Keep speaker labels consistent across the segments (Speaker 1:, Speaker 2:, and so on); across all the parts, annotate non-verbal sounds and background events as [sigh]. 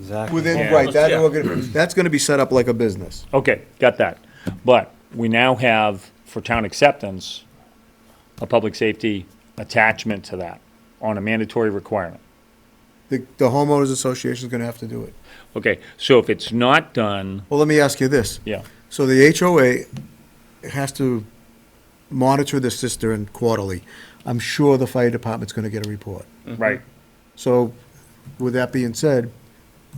Speaker 1: Exactly.
Speaker 2: Within,
Speaker 3: Yeah.
Speaker 2: right, that,
Speaker 4: Yeah.
Speaker 2: organ- [clears throat] that's gonna be set up like a business.
Speaker 3: Okay, got that. But we now have, for town acceptance, a public safety attachment to that on a mandatory requirement.
Speaker 2: The, the homeowners association's gonna have to do it.
Speaker 3: Okay, so if it's not done,
Speaker 2: Well, let me ask you this.
Speaker 3: yeah,
Speaker 2: So the HOA has to monitor the cistern quarterly. I'm sure the fire department's gonna get a report.
Speaker 3: Mm-hmm. right,
Speaker 2: So with that being said,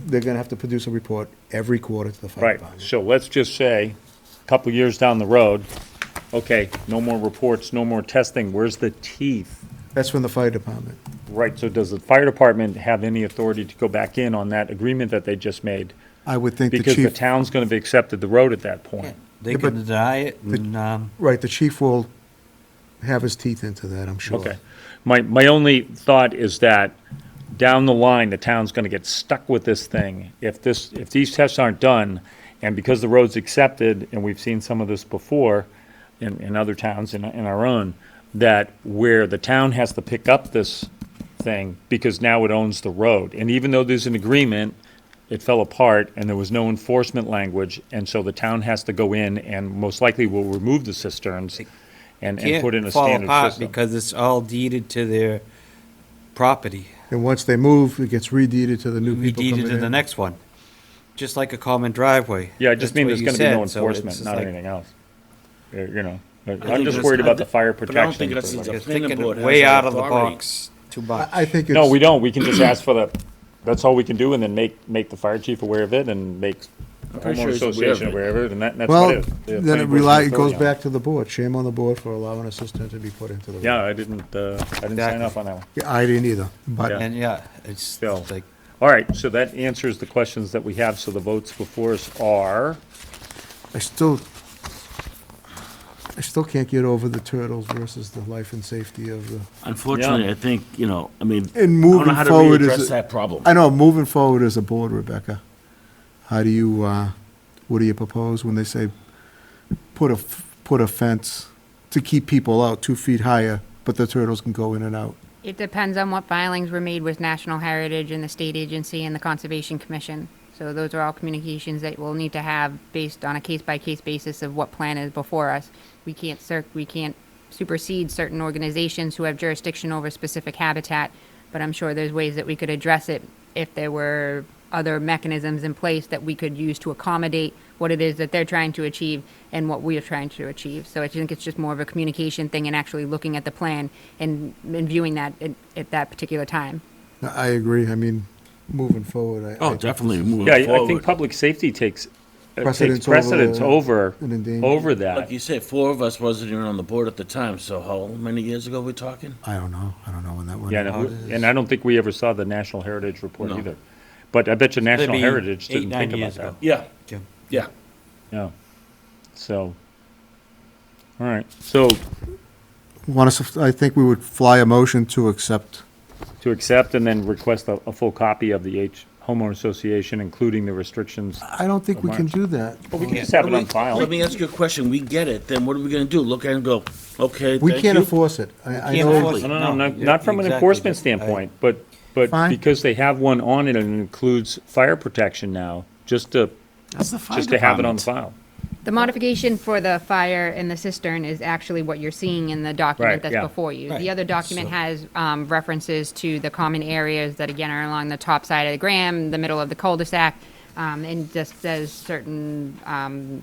Speaker 2: they're gonna have to produce a report every quarter to the fire
Speaker 3: right.
Speaker 2: department.
Speaker 3: So let's just say, a couple years down the road, okay, no more reports, no more testing, where's the teeth?
Speaker 2: That's from the fire department.
Speaker 3: Right, so does the fire department have any authority to go back in on that agreement that they just made?
Speaker 2: I would think the
Speaker 3: Because the
Speaker 2: chief,
Speaker 3: town's gonna be accepted the road at that point.
Speaker 1: They can deny it and, um,
Speaker 2: right, the chief will have his teeth into that, I'm sure.
Speaker 3: Okay. My, my only thought is that down the line, the town's gonna get stuck with this thing. If this, if these tests aren't done, and because the road's accepted, and we've seen some of this before in, in other towns and in our own, that where the town has to pick up this thing because now it owns the road. And even though there's an agreement, it fell apart and there was no enforcement language. And so the town has to go in and most likely will remove the cisterns and, and put in a
Speaker 1: can't fall
Speaker 3: standard
Speaker 1: apart
Speaker 3: system.
Speaker 1: because it's all deeded to their property.
Speaker 2: And once they move, it gets redeeded to the new
Speaker 1: We
Speaker 2: people coming in.
Speaker 1: deeded to the next one, just like a common driveway.
Speaker 3: Yeah, I just
Speaker 1: That's
Speaker 3: mean
Speaker 1: what
Speaker 3: there's
Speaker 1: you
Speaker 3: gonna be no
Speaker 1: said, so it's
Speaker 3: enforcement,
Speaker 1: just
Speaker 3: not
Speaker 1: like-
Speaker 3: anything else. Uh, You know, but
Speaker 4: think
Speaker 3: I'm just
Speaker 4: that's-
Speaker 3: worried
Speaker 4: I
Speaker 3: about
Speaker 4: thi-
Speaker 3: the fire
Speaker 4: but I
Speaker 3: protection.
Speaker 4: don't think
Speaker 3: for
Speaker 4: that's
Speaker 3: everybody.
Speaker 4: The
Speaker 1: You're
Speaker 4: planning
Speaker 1: thinking
Speaker 4: board has
Speaker 1: way
Speaker 4: that
Speaker 1: out of the
Speaker 4: authority.
Speaker 1: box, too
Speaker 2: I
Speaker 1: much.
Speaker 2: I think it's.
Speaker 3: No, we don't. We can
Speaker 4: [clears throat]
Speaker 3: just ask for the, that's all we can do and then make, make the fire chief aware of it and make the
Speaker 4: pretty sure
Speaker 3: homeowner
Speaker 4: he's aware
Speaker 3: association
Speaker 4: of it.
Speaker 3: aware of it and that, that's
Speaker 2: Well,
Speaker 3: what it is. The
Speaker 2: then it
Speaker 3: planning board's
Speaker 2: rely, it
Speaker 3: authority
Speaker 2: goes
Speaker 3: on
Speaker 2: back to the board. Shame on the board for allowing a cistern to be put into the.
Speaker 3: Yeah, I didn't, uh, I didn't sign
Speaker 1: Exactly.
Speaker 3: up on that one.
Speaker 2: Yeah, I didn't either, but,
Speaker 3: Yeah.
Speaker 1: And yeah, it's
Speaker 3: So-
Speaker 1: like,
Speaker 3: All right, so that answers the questions that we have. So the votes before us are,
Speaker 2: I still, I still can't get over the turtles versus the life and safety of the.
Speaker 3: Yeah.
Speaker 4: Unfortunately, I think, you know, I mean, I
Speaker 2: And
Speaker 4: don't know
Speaker 2: moving
Speaker 4: how to
Speaker 2: forward is
Speaker 4: readdress
Speaker 2: a-
Speaker 4: that problem.
Speaker 2: I know, moving forward as a board, Rebecca, how do you, uh, what do you propose when they say, put a, f- put a fence to keep people out two feet higher, but the turtles can go in and out?
Speaker 5: It depends on what filings were made with National Heritage and the State Agency and the Conservation Commission. So those are all communications that we'll need to have based on a case-by-case basis of what plan is before us. We can't cer, we can't supersede certain organizations who have jurisdiction over specific habitat, but I'm sure there's ways that we could address it if there were other mechanisms in place that we could use to accommodate what it is that they're trying to achieve and what we are trying to achieve. So I think it's just more of a communication thing and actually looking at the plan and, and viewing that at, at that particular time.
Speaker 2: No, I agree, I mean, moving forward, I.
Speaker 4: Oh,
Speaker 2: I-
Speaker 4: definitely
Speaker 3: yeah,
Speaker 4: moving
Speaker 3: I think
Speaker 4: forward.
Speaker 3: public safety takes, uh, takes
Speaker 2: Precedence over
Speaker 3: precedence
Speaker 2: the-
Speaker 3: over,
Speaker 2: an endangered-
Speaker 3: over that.
Speaker 4: Like you said, four of us wasn't even on the board at the time, so how many years ago we talking?
Speaker 2: I don't know, I don't know when that one.
Speaker 3: Yeah, no, and I don't think we ever saw the National Heritage Report
Speaker 4: No.
Speaker 3: either. But I bet you National
Speaker 1: be
Speaker 3: Heritage
Speaker 1: eight,
Speaker 3: didn't
Speaker 1: nine
Speaker 3: think about
Speaker 1: years
Speaker 3: that.
Speaker 1: ago.
Speaker 4: Yeah,
Speaker 1: yeah.
Speaker 4: yeah.
Speaker 3: No. So, all right. So
Speaker 2: Want us, I think we would fly a motion to accept.
Speaker 3: to accept and then request a, a full copy of the H homeowner association, including the restrictions.
Speaker 2: I don't think we can do that.
Speaker 3: But we can just have it on
Speaker 4: Let
Speaker 3: file.
Speaker 4: me ask you a question. We get it, then what are we gonna do? Look at it and go, okay,
Speaker 2: We
Speaker 4: thank
Speaker 2: can't
Speaker 4: you?
Speaker 2: enforce it. I, I
Speaker 1: can't
Speaker 2: know,
Speaker 1: enforce
Speaker 3: No,
Speaker 1: it.
Speaker 3: no, no, not,
Speaker 1: yeah,
Speaker 3: not from an
Speaker 1: exactly,
Speaker 3: enforcement
Speaker 1: but I-
Speaker 3: standpoint, but, but
Speaker 2: Fine.
Speaker 3: because they have one on it and it includes fire protection now, just to,
Speaker 4: That's the fire
Speaker 3: just to have it on
Speaker 4: department.
Speaker 3: file.
Speaker 5: The modification for the fire and the cistern is actually what you're seeing in the
Speaker 3: Right,
Speaker 5: document that's
Speaker 3: yeah.
Speaker 5: before you.
Speaker 1: Right,
Speaker 5: The other document
Speaker 1: so-
Speaker 5: has um, references to the common areas that again are along the top side of the gram, the middle of the cul-de-sac, um, and just says certain um,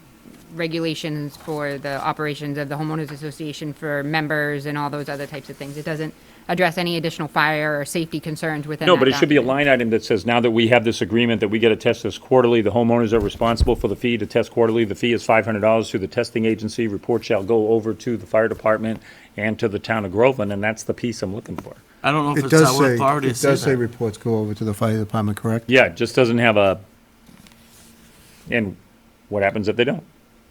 Speaker 5: regulations for the operations of the homeowners association for members and all those other types of things. It doesn't address any additional fire or safety concerns within
Speaker 3: No,
Speaker 5: that
Speaker 3: but it should be a
Speaker 5: document.
Speaker 3: line item that says, now that we have this agreement that we get to test this quarterly, the homeowners are responsible for the fee to test quarterly. The fee is five hundred dollars through the testing agency. Report shall go over to the fire department and to the town of Groveland, and that's the piece I'm looking for.
Speaker 4: I don't know if
Speaker 2: it
Speaker 4: it's our
Speaker 2: does say,
Speaker 4: authority
Speaker 2: it
Speaker 4: to
Speaker 2: does
Speaker 4: say
Speaker 2: say
Speaker 4: that.
Speaker 2: reports go over to the fire department, correct?
Speaker 3: Yeah, it just doesn't have a, and what happens if they don't?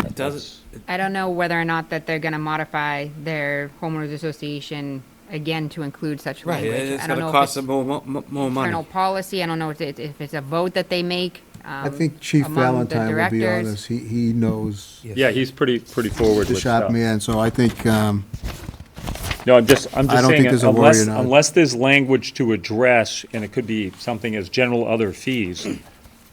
Speaker 1: it doesn't,
Speaker 5: I don't know whether or not that they're gonna modify their homeowners association again to include such
Speaker 1: right,
Speaker 5: language.
Speaker 1: it's
Speaker 5: I don't
Speaker 1: gonna
Speaker 5: know if
Speaker 1: cost
Speaker 5: it's
Speaker 1: them more, mo- more
Speaker 5: Internal
Speaker 1: money.
Speaker 5: policy, I don't know if it- if it's a vote that they make. um,
Speaker 2: I think Chief Valentine will be on this. He, he knows
Speaker 3: Yeah, he's pretty, pretty forward
Speaker 2: the
Speaker 3: with
Speaker 2: shop
Speaker 3: stuff.
Speaker 2: man, so I think, um,
Speaker 3: No, I'm just, I'm
Speaker 2: I
Speaker 3: just
Speaker 2: don't
Speaker 3: saying,
Speaker 2: think there's a worry
Speaker 3: unless,
Speaker 2: or not.
Speaker 3: unless there's language to address, and it could be something as general other fees,